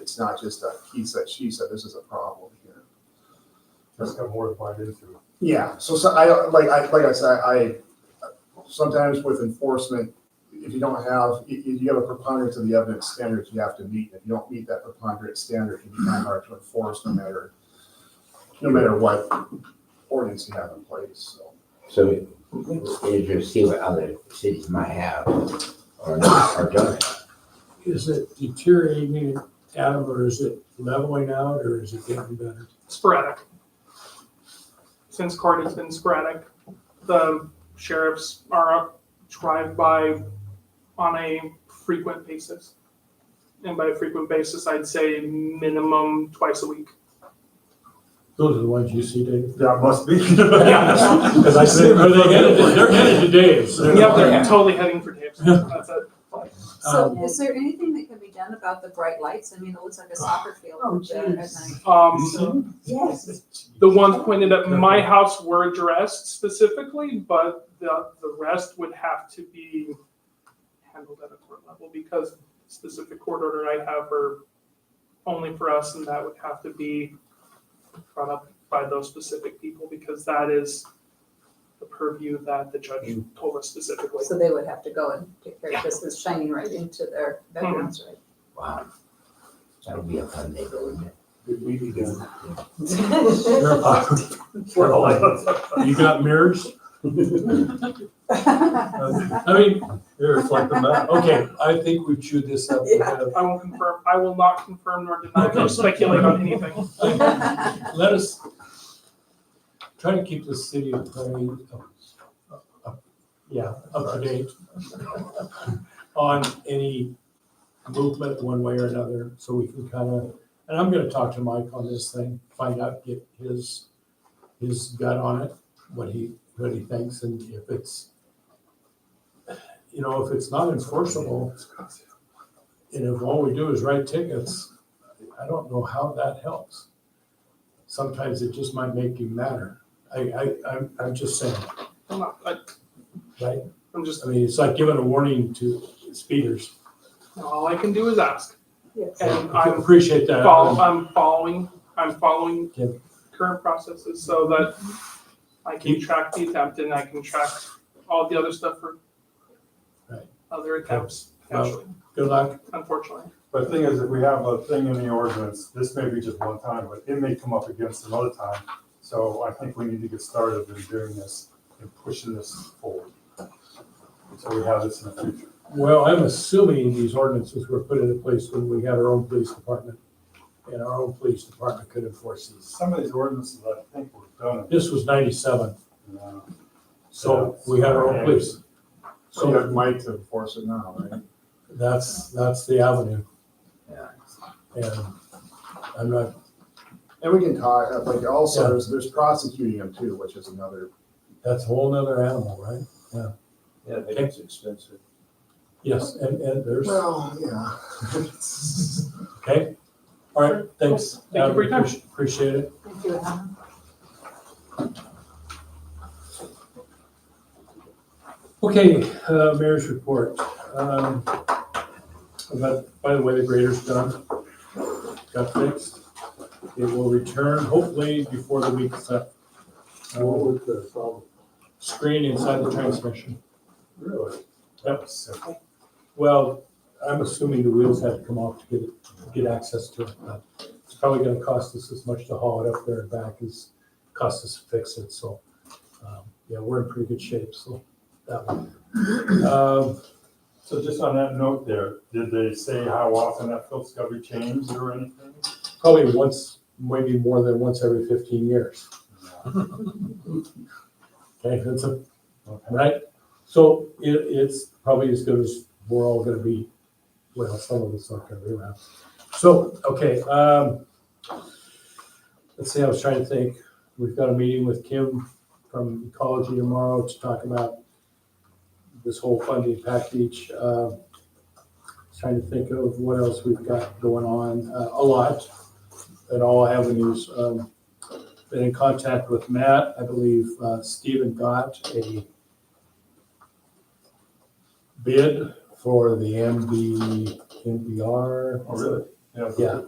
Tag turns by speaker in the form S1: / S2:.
S1: it's not just a he said, she said, this is a problem here.
S2: That's got more to find into.
S1: Yeah, so, so I, like, I, like I said, I, sometimes with enforcement, if you don't have, if you have a preponderance of the evidence standards you have to meet, if you don't meet that preponderance standard, it can be kind of hard to enforce no matter, no matter what ordinance you have in place, so.
S3: So is to see what other cities might have or not, or don't. have.
S4: Is it deteriorating, Adam, or is it leveling out, or is it getting better?
S5: sporadic. Since court, it's been sporadic. The sheriffs are up drive-by on a frequent basis. And by frequent basis, I'd say minimum twice a week.
S4: Those are the ones you see, Dave?
S2: That must be.
S5: Yeah.
S2: As I said.
S4: Are they headed, they're headed to Dave's.
S5: Yep, they're totally heading for Dave's. That's it.
S4: Um,
S6: So is there anything that can be done about the bright lights? I mean, it looks like a soccer field
S7: Oh,
S6: at night.
S7: jeez.
S5: Um,
S7: Yes.
S5: the ones pointed at my house were addressed specifically, but the, the rest would have to be handled at a court level because specific court order I have are only for us and that would have to be brought up by those specific people because that is the purview that the judge told us specifically.
S6: So they would have to go and take care of this, it's shining right into their bedrooms,
S3: Wow. That'll be a fun day, wouldn't it?
S2: We need to.
S6: right?
S4: You got mirrors? I mean, they reflect the map. Okay, I think we chewed this up. We had a-
S5: I will confirm, I will not confirm nor deny nor speculate on anything.
S4: Let us try to keep the city of Clay up, up- up- yeah, up to date on any movement one way or another, so we can kind of, and I'm gonna talk to Mike on this thing, find out, get his, his gut on it, what he, what he thinks, and if it's, you know, if it's not enforceable, and if all we do is write tickets, I don't know how that helps sometimes it just might make you madder. I, I, I'm, I'm just saying,
S5: I'm not, I,
S4: right?
S5: I'm just,
S4: I mean, it's like giving a warning to speeders.
S5: all I can do is ask.
S6: Yes.
S5: And
S4: I
S5: I'm
S4: appreciate that. Um,
S5: follow, I'm following, I'm following
S4: Yeah.
S5: current processes so that I can
S4: Keep-
S5: track the attempt and I can track all the other stuff for
S4: Right.
S5: other attempts,
S4: Well-
S5: potentially,
S4: Good luck.
S5: unfortunately.
S2: But the thing is, if we have a thing in the ordinance, this may be just one time, but it may come up against another time. So I think we need to get started in doing this and pushing this forward. So we have this in the future.
S4: Well, I'm assuming these ordinances were put into place when we had our own police department. And our own police department could enforce these.
S2: Some of these ordinances, I think, were done.
S4: This was ninety-seven,
S2: in, uh,
S4: so we had our own police.
S1: So you
S4: So
S1: have Mike to enforce it now, right?
S4: that's, that's the avenue.
S3: Yeah.
S4: And I'm not,
S1: And we can talk, uh, like, also,
S4: Yeah.
S1: there's, there's prosecuting them too, which is another,
S4: that's a whole nother animal, right?
S8: Yeah, I think it's expensive.
S4: Yes, and, and there's.
S1: well, yeah.
S4: Okay, all right, thanks.
S5: Thank you for your time.
S4: Appreciate- Appreciate it.
S6: Thank you, Alan.
S4: Okay, uh, mayor's report. Um, but by the way, the grader's done, got fixed. It will return hopefully before the week's up.
S2: What
S4: Uh,
S2: was the problem?
S4: Screen inside the transmission.
S2: Really?
S4: Yep.
S2: Simple.
S4: Well, I'm assuming the wheels had to come off to get it, to get access to it. but It's probably gonna cost us as much to haul it up there and back as cost us to fix it, so. um, Yeah, we're in pretty good shape, so that one. Um,
S2: So just on that note there, did they say how often that filter's got to be changed or anything?
S4: Probably once, maybe more than once every fifteen years. Okay, that's a,
S2: Okay.
S4: right? So it, it's probably as good as we're all gonna be, well, some of it's not gonna be around. So, okay, um, let's see, I was trying to think, we've got a meeting with Kim from Ecology tomorrow to talk about this whole funding package. Uh, Trying to think of what else we've got going on, uh, a lot in all avenues. Um, been in contact with Matt. I believe uh, Stephen got a bid for the MB, MBR.
S2: Oh, really? Yeah.
S4: Yeah.